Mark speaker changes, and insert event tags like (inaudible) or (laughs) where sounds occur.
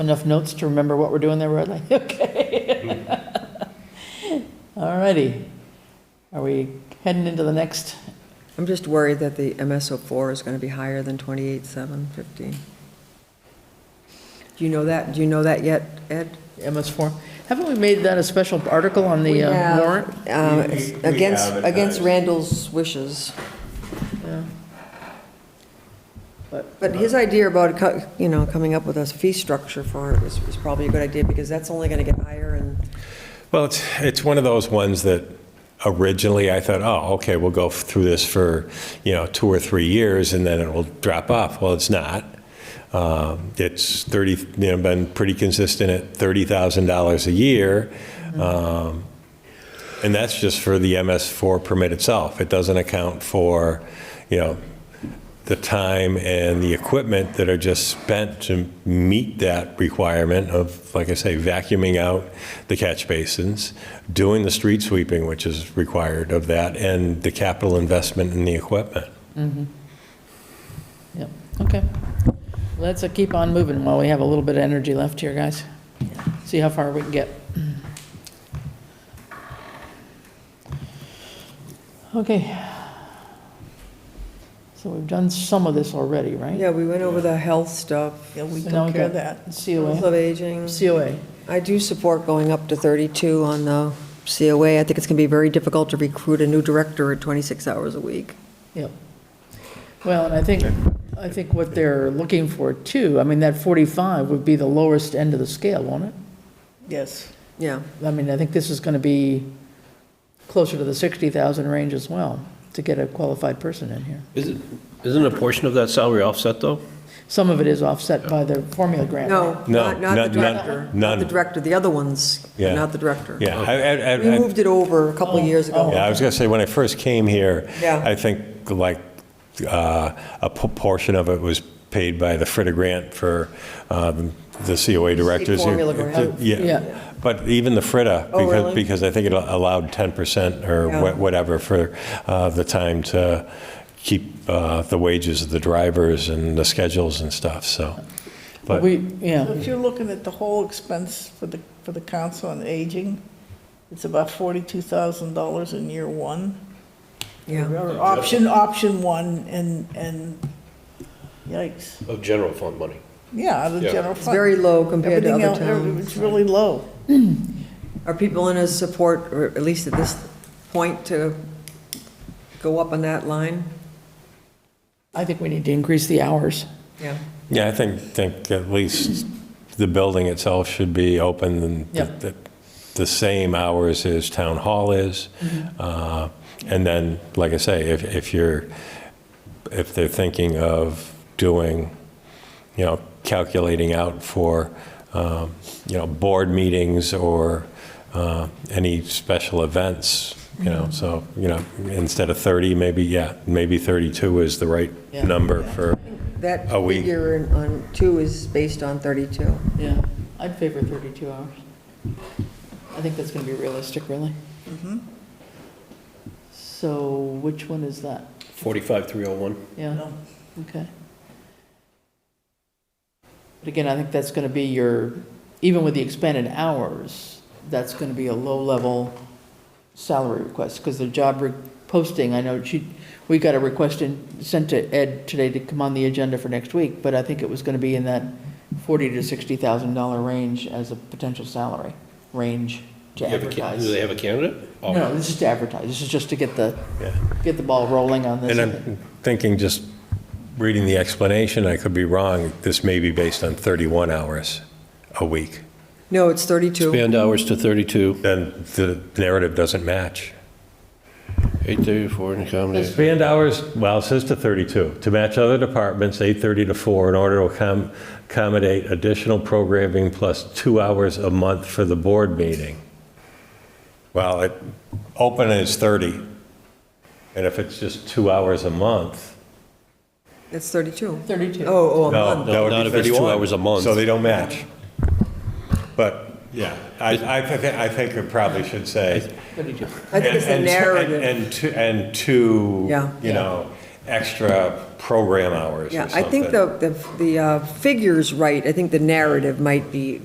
Speaker 1: Enough notes to remember what we're doing there, Bradley? (laughs) Okay.
Speaker 2: (laughs)
Speaker 1: All righty. Are we heading into the next?
Speaker 3: I'm just worried that the MSO four is gonna be higher than twenty-eight, seven, fifteen. Do you know that, do you know that yet, Ed?
Speaker 1: MS4. Haven't we made that a special article on the uh, warrant?
Speaker 3: Um,
Speaker 4: We- we- we
Speaker 3: Against, against
Speaker 4: advertise.
Speaker 3: Randall's wishes.
Speaker 1: Yeah.
Speaker 3: But his idea about, co- you know, coming up with a fee structure for it is is probably a good idea, because that's only gonna get higher, and
Speaker 4: Well, it's, it's one of those ones that originally I thought, oh, okay, we'll go through this for, you know, two or three years and then it will drop off. Well, it's not. Um, It's 30, you know, been pretty consistent at $30,000 a year. Um, And that's just for the MS4 permit itself. It doesn't account for, you know, the time and the equipment that are just spent to meet that requirement of, like I say, vacuuming out the catch basins, doing the street sweeping, which is required of that, and the capital investment in the equipment.
Speaker 1: Yep, okay. Let's uh, keep on moving while we have a little bit of energy left here, guys. See how far we can get. Okay. So we've done some of this already, right?
Speaker 3: yeah, we went over the health stuff,
Speaker 2: Yeah, we
Speaker 1: So now
Speaker 2: took
Speaker 1: we
Speaker 2: care of
Speaker 1: got
Speaker 2: that.
Speaker 3: health
Speaker 1: COA.
Speaker 3: of aging.
Speaker 1: COA.
Speaker 3: I do support going up to 32 on the COA. I think it's going to be very difficult to recruit a new director at 26 hours a week.
Speaker 1: Yep. Well, and I think, I think what they're looking for too, I mean, that 45 would be the lowest end of the scale, won't it?
Speaker 2: Yes,
Speaker 3: Yeah,
Speaker 1: I mean, I think this is going to be closer to the 60,000 range as well, to get a qualified person in here.
Speaker 5: Isn't, isn't a portion of that salary offset, though?
Speaker 1: Some of it is offset by the formula grant.
Speaker 3: no,
Speaker 4: No,
Speaker 3: not not the
Speaker 4: not- not-
Speaker 3: director. Not
Speaker 4: none.
Speaker 3: the director, the other ones,
Speaker 4: Yeah.
Speaker 3: not the director.
Speaker 4: Yeah, I- I-
Speaker 3: We
Speaker 4: I- I-
Speaker 3: moved it over a couple of years
Speaker 4: Yeah,
Speaker 3: ago.
Speaker 4: I was going to say, when I first came here,
Speaker 3: Oh. Yeah.
Speaker 4: I think like uh, a p- portion of it was paid by the Fritter Grant for um, the COA directors.
Speaker 3: formula grant.
Speaker 1: Yeah.
Speaker 4: Yeah, but even the Fritter,
Speaker 3: Oh,
Speaker 4: because,
Speaker 3: really?
Speaker 4: because I think it allowed 10% or
Speaker 3: Yeah.
Speaker 4: wha- whatever for uh, the time to keep uh, the wages of the drivers and the schedules and stuff, so.
Speaker 1: But
Speaker 4: But
Speaker 1: we,
Speaker 2: so
Speaker 1: yeah,
Speaker 2: if you're looking at the whole expense for the, for the council on aging, it's about forty-two thousand dollars in year one.
Speaker 3: Yeah,
Speaker 2: Or option, option one, and, and, yikes,
Speaker 5: Of general fund money.
Speaker 2: yeah, out of the
Speaker 5: Yeah.
Speaker 2: general
Speaker 3: it's
Speaker 2: fund.
Speaker 3: very low compared to
Speaker 2: Everything
Speaker 3: other
Speaker 2: else, every-
Speaker 3: towns.
Speaker 2: it's really low.
Speaker 3: Are people in his support, or at least at this point, to go up on that line?
Speaker 1: I think we need to increase the hours.
Speaker 3: Yeah.
Speaker 4: Yeah, I think, think at least the building itself should be open and
Speaker 1: Yeah.
Speaker 4: the- the same hours as town hall is.
Speaker 1: Mm-hmm.
Speaker 4: Uh, And then, like I say, if, if you're, if they're thinking of doing, you know, calculating out for, um, you know, board meetings or uh, any special events, you know,
Speaker 1: Mm-hmm.
Speaker 4: so, you know, instead of 30, maybe, yeah, maybe 32 is the right
Speaker 1: Yeah.
Speaker 4: number for.
Speaker 3: That
Speaker 4: Are we-
Speaker 3: figure in- on two is based on 32.
Speaker 1: Yeah, I'd favor 32 hours. I think that's going to be realistic, really. So which one is that?
Speaker 5: 45,301.
Speaker 1: Yeah,
Speaker 2: No.
Speaker 1: okay. But again, I think that's going to be your, even with the expanded hours, that's going to be a low-level salary request, because the job re- posting, I know she, we got a request in, sent to Ed today to come on the agenda for next week, but I think it was going to be in that forty to sixty thousand dollar range as a potential salary range to advertise.
Speaker 5: Do they have a candidate? Oh,
Speaker 1: No, this is to advertise, this is just to get the,
Speaker 4: Yeah.
Speaker 1: get the ball rolling on this.
Speaker 4: And I'm thinking, just reading the explanation, I could be wrong, this may be based on 31 hours a week.
Speaker 3: No, it's 32.
Speaker 5: Expand hours to 32,
Speaker 4: Then the narrative doesn't match.
Speaker 5: 834 and accommodate.
Speaker 4: Expand hours, well, it says to 32, to match other departments, 8:30 to 4, in order to accom- accommodate additional programming plus two hours a month for the board meeting. Well, it, open is 30, and if it's just two hours a month.
Speaker 3: It's 32.
Speaker 1: Thirty-two.
Speaker 3: Oh, oh, a month.
Speaker 4: No, that would
Speaker 5: not
Speaker 4: be
Speaker 5: if it's two
Speaker 4: 31.
Speaker 5: hours a month.
Speaker 4: So they don't match. But, yeah, I, I think, I think it probably should say.
Speaker 1: Thirty-two.
Speaker 3: I think it's the
Speaker 4: and- and-
Speaker 3: narrative.
Speaker 4: And, and to,
Speaker 3: Yeah.
Speaker 4: you know, extra program hours or
Speaker 3: Yeah,
Speaker 4: something.
Speaker 3: I think the, the- the uh, figure's right. I think the narrative might be